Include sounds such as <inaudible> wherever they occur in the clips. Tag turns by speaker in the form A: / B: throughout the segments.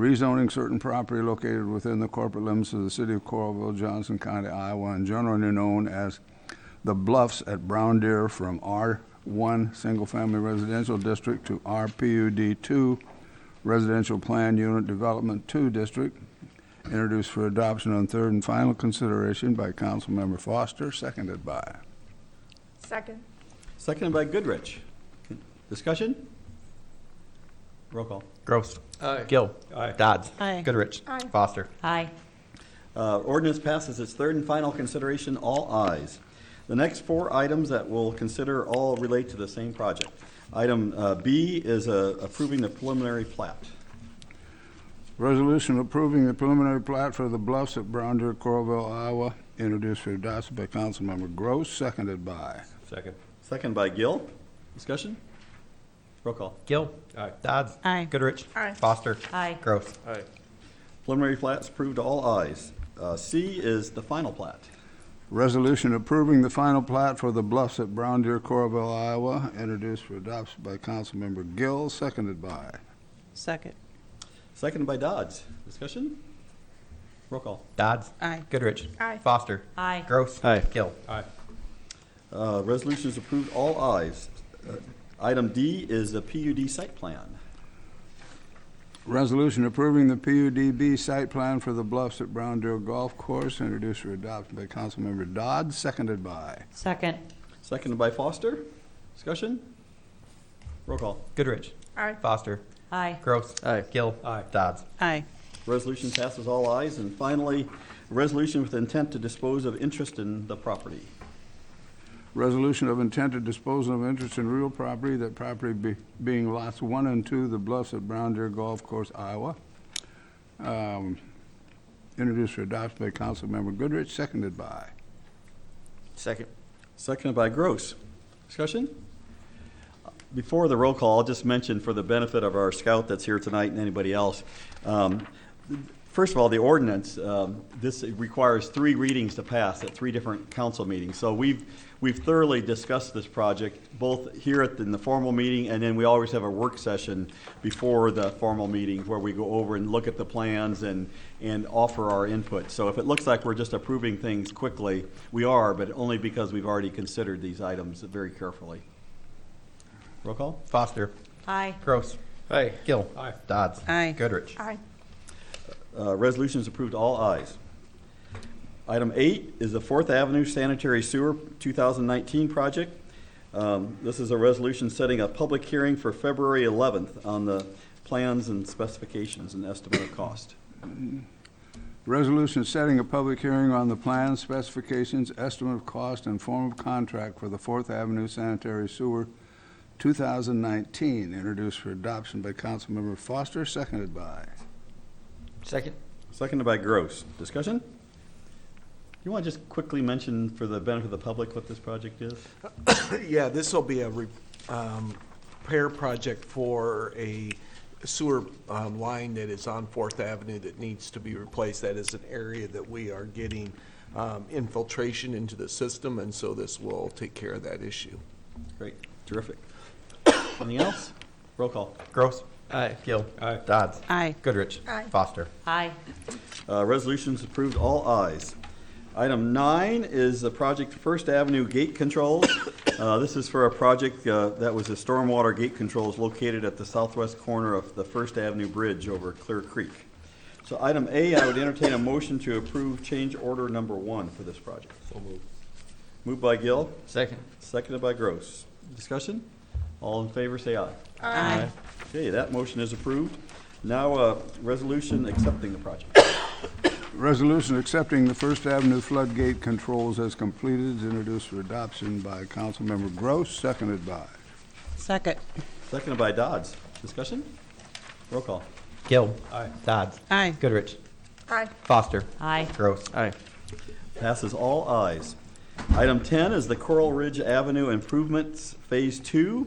A: rezoning certain property located within the corporate limits of the city of Coralville, Johnson County, Iowa, and generally known as the Bluffs at Brown Deer from R1 Single Family Residential District to RPUD2 Residential Plan Unit Development 2 District, introduced for adoption on third and final consideration by Councilmember Foster, seconded by.
B: Second.
C: Seconded by Goodrich. Discussion? Roll call.
D: Gross. Gill. Dodds.
E: Aye.
D: Goodrich.
B: Aye.
D: Foster.
E: Aye.
C: Uh, Ordinance passes its third and final consideration, all ayes. The next four items that we'll consider all relate to the same project. Item uh, B is uh, approving the preliminary plat.
A: Resolution approving the preliminary plat for the Bluffs at Brown Deer, Coralville, Iowa, introduced for adoption by Councilmember Gross, seconded by.
F: Second.
C: Seconded by Gill. Discussion? Roll call.
D: Gill.
F: Aye.
D: Dodds.
E: Aye.
D: Goodrich.
B: Aye.
D: Foster.
E: Aye.
D: Gross.
F: Aye.
C: Preliminary plat's approved, all ayes. Uh, C is the final plat.
A: Resolution approving the final plat for the Bluffs at Brown Deer, Coralville, Iowa, introduced for adoption by Councilmember Gill, seconded by.
E: Second.
C: Seconded by Dodds. Discussion? Roll call.
D: Dodds.
E: Aye.
D: Goodrich.
B: Aye.
D: Foster.
E: Aye.
D: Gross.
C: Aye.
D: Gill.
F: Aye.
C: Uh, Resolution is approved, all ayes. Uh, Item D is the PUD site plan.
A: Resolution approving the PUDB site plan for the Bluffs at Brown Deer Golf Course, introduced for adoption by Councilmember Dodd, seconded by.
E: Second.
C: Seconded by Foster. Discussion? Roll call.
D: Goodrich.
B: Aye.
D: Foster.
E: Aye.
D: Gross. Aye. Gill.
F: Aye.
D: Dodds.
E: Aye.
C: Resolution passes all ayes. And finally, resolution with intent to dispose of interest in the property.
A: Resolution of intent to dispose of interest in real property, that property be- being lots one and two, the Bluffs at Brown Deer Golf Course, Iowa. Um, Introduced for adoption by Councilmember Goodrich, seconded by.
D: Second.
C: Seconded by Gross. Discussion? Uh, Before the roll call, I'll just mention for the benefit of our scout that's here tonight and anybody else. um, First of all, the ordinance, um, this requires three readings to pass at three different council meetings. So we've, we've thoroughly discussed this project, both here at, the- in the formal meeting, and then we always have a work session before the formal meeting where we go over and look at the plans and, and offer our input. So if it looks like we're just approving things quickly, we are, but only because we've already considered these items very carefully. Roll call?
D: Foster.
E: Aye.
D: Gross. Aye. Gill.
F: Aye.
D: Dodds.
E: Aye.
D: Goodrich.
B: Aye.
C: Uh, Resolution is approved, all ayes. Item eight is the Fourth Avenue Sanitary Sewer 2019 project. Um, This is a resolution setting a public hearing for February 11th on the plans and specifications and estimate of cost.
A: Resolution setting a public hearing on the plans, specifications, estimate of cost, and form of contract for the Fourth Avenue Sanitary Sewer 2019, introduced for adoption by Councilmember Foster, seconded by.
D: Second.
C: Seconded by Gross. Discussion? You want to just quickly mention for the benefit of the public what this project is?
G: <coughs> Yeah, this will be a re- um, repair project for a sewer uh, line that is on Fourth Avenue that needs to be replaced. That is an area that we are getting um, infiltration into the system, and so this will take care of that issue.
C: Great, terrific. Anything else? Roll call.
D: Gross. Aye. Gill.
F: Aye.
D: Dodds.
E: Aye.
D: Goodrich.
B: Aye.
D: Foster.
E: Aye.
C: Uh, Resolutions approved, all ayes. Item nine is the project First Avenue Gate Controls. <coughs> Uh, This is for a project uh, that was a stormwater gate controls located at the southwest corner of the First Avenue Bridge over Clear Creek. So item A, I would entertain a motion to approve change order number one for this project.
F: So moved.
C: Moved by Gill,
D: Second.
C: seconded by Gross. Discussion? All in favor, say aye.
E: Aye.
C: Okay, that motion is approved. Now, uh, resolution accepting the project.
A: Resolution accepting the First Avenue floodgate controls as completed, introduced for adoption by Councilmember Gross, seconded by.
E: Second.
C: Seconded by Dodds. Discussion? Roll call.
D: Gill.
F: Aye.
D: Dodds.
E: Aye.
D: Goodrich.
B: Aye.
D: Foster.
E: Aye.
D: Gross. Aye.
C: Passes all ayes. Item 10 is the Coral Ridge Avenue Improvements Phase 2.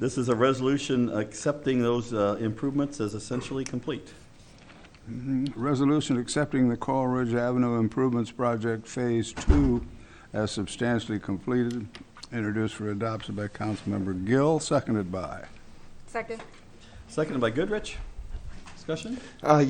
C: This is a resolution accepting those uh, improvements as essentially complete.
A: Resolution accepting the Coral Ridge Avenue Improvements Project Phase Two as substantially completed, introduced for adoption by Councilmember Gill, seconded by.
B: Second.
C: Seconded by Goodrich. Discussion?